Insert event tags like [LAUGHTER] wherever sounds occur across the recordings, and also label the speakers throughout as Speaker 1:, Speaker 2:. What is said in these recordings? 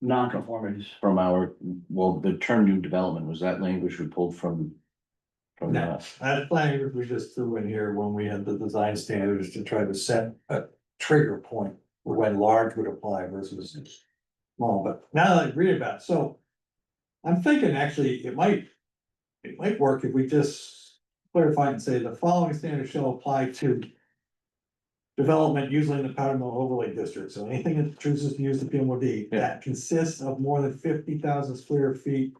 Speaker 1: non-conformities.
Speaker 2: from our, well, the term new development, was that language we pulled from? From
Speaker 3: No.
Speaker 2: that?
Speaker 3: That language we just threw in here when we had the design standards to try to set a trigger point for when large would apply versus small, but now that I read about it, so I'm thinking actually it might, it might work if we just clarify and say the following standards shall apply to development usually in the powder mill overlay district, so anything that chooses to use the PMOD that consists of more than fifty thousand square feet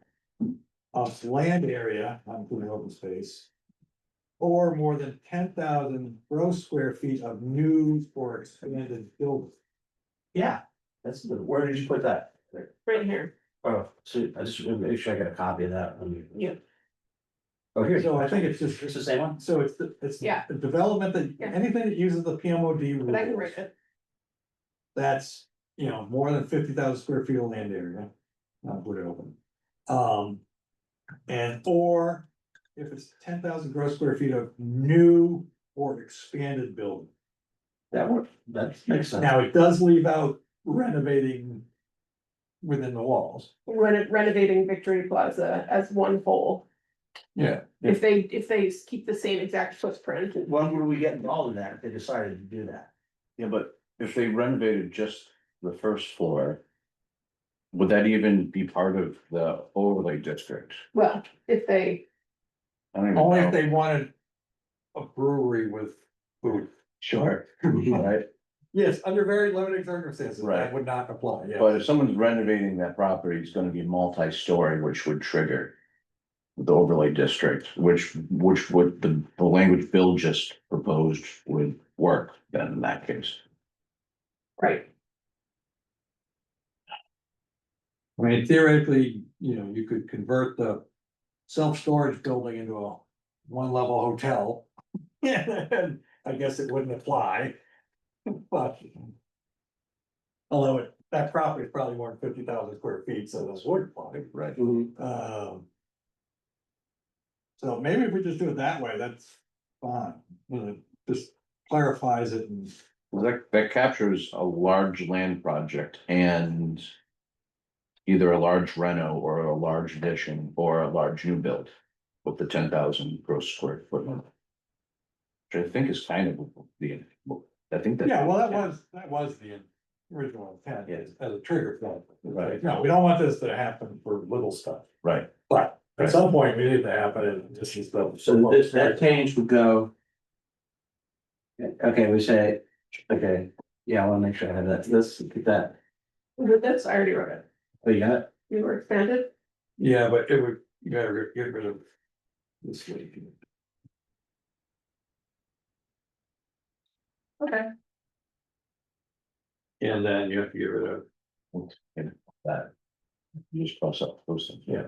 Speaker 3: of land area, not including open space, or more than ten thousand gross square feet of new or expanded buildings.
Speaker 1: Yeah, that's, the- where did you put that?
Speaker 4: right here.
Speaker 1: Oh, so I just wanna make sure I got a copy of that. one.
Speaker 4: Yeah.
Speaker 1: Oh, here,
Speaker 3: So I think it's just,
Speaker 1: it's the same one?
Speaker 3: so it's, the it's
Speaker 4: Yeah.
Speaker 3: the development
Speaker 4: Yeah.
Speaker 3: that, anything that uses the PMOD
Speaker 4: But I can
Speaker 3: rules,
Speaker 4: write it.
Speaker 3: that's, you know, more than fifty thousand square feet of land area. Not put it open. Um, and or if it's ten thousand gross square feet of new or expanded building.
Speaker 1: That worked, that makes sense.
Speaker 3: Now, it does leave out renovating within the walls.
Speaker 4: Ren- Renovating Victory Plaza as one whole.
Speaker 3: Yeah.
Speaker 4: If they, if they keep the same exact footprint,
Speaker 1: When would we get involved in that if they decided to do that?
Speaker 2: Yeah, but if they renovated just the first floor. Would that even be part of the overlay district?
Speaker 4: well, if they,
Speaker 2: I don't even
Speaker 3: Only
Speaker 2: know.
Speaker 3: if they wanted a brewery with food.
Speaker 2: Sure. Right,
Speaker 3: Yes, under very limited circumstances,
Speaker 2: Right.
Speaker 3: that would not apply, yeah.
Speaker 2: but if someone's renovating that property, it's gonna be multi-story, which would trigger. The overlay district, which, which would, the, the language Bill just proposed would work then in that case.
Speaker 4: right,
Speaker 3: I mean theoretically, you know, you could convert the self-storage building into a one-level hotel. [LAUGHS] And I guess it wouldn't apply, but. Although it, that property is probably more than fifty thousand square feet, so this would apply.
Speaker 2: Right.
Speaker 1: Mhm.
Speaker 3: Um. So maybe if we just do it that way, that's fine, You know, just clarifies it and.
Speaker 2: Well, That, that captures a large land project and. Either a large reno or a large addition or a large new build with the ten thousand gross square foot. limit. Which I think is kind of the, I think that.
Speaker 3: Yeah, well, that was, that was the original intent,
Speaker 2: Yeah.
Speaker 3: as as a trigger point.
Speaker 2: Right.
Speaker 3: No, we don't want this to happen for little stuff,
Speaker 2: Right,
Speaker 3: but at some point, we need to happen, and this is the.
Speaker 1: So this, that change would go. Okay, we say, okay, yeah, I wanna make sure I have that, this, get that,
Speaker 4: with this, I already wrote it.
Speaker 1: oh, you got it?
Speaker 4: We were expanded,
Speaker 3: Yeah, but it would, you gotta ri- get rid of this week.
Speaker 4: okay,
Speaker 3: And then you have to get rid of.
Speaker 2: that. You just cross out those things.
Speaker 3: Yeah.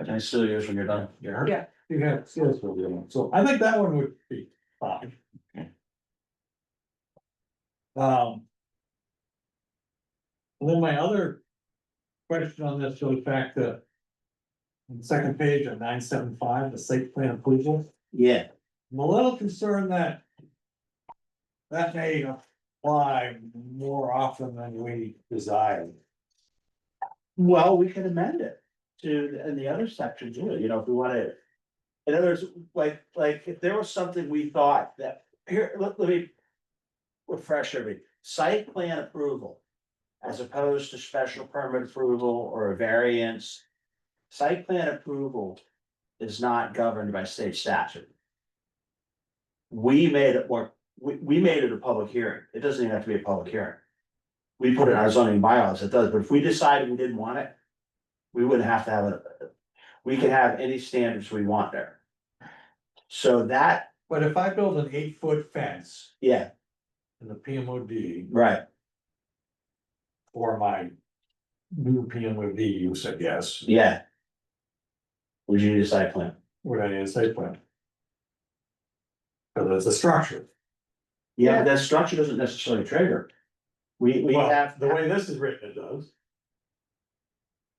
Speaker 1: Can I steal yours when you're done?
Speaker 3: Yeah.
Speaker 4: Yeah.
Speaker 3: You have, so that's what we're doing. so I think that one would be fine.
Speaker 2: Okay.
Speaker 3: Um. and Then my other question on this goes back to. the Second page of nine seven five, the site plan approval,
Speaker 1: Yeah.
Speaker 3: I'm a little concerned that. That may apply more often than we desire.
Speaker 1: Well, we could amend it to, in the other section too, you know, if we wanna. In other words, like, like if there was something we thought that, here, let, let me. Refresh everybody, site plan approval. As opposed to special permit approval or a variance. Site plan approval is not governed by state statute. We made it work, we, we made it a public hearing, it doesn't even have to be a public hearing. We put it in our zoning bylaws, it does, but if we decided we didn't want it. We wouldn't have to have it, we could have any standards we want there. So that,
Speaker 3: But if I build an eight foot fence
Speaker 1: yeah,
Speaker 3: in the PMOD.
Speaker 1: right,
Speaker 3: for my new PMOD use, I guess,
Speaker 1: yeah. Would you need a site plan?
Speaker 3: would I need a site plan? Because it's a structure.
Speaker 1: Yeah, but that structure doesn't necessarily trigger. We, we
Speaker 3: Well,
Speaker 1: have.
Speaker 3: The way this is written, it does.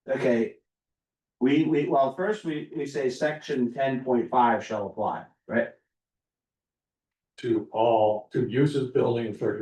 Speaker 1: Okay. We, we, well, first we, we say section ten point five shall apply, right?
Speaker 3: To all, to uses, buildings, or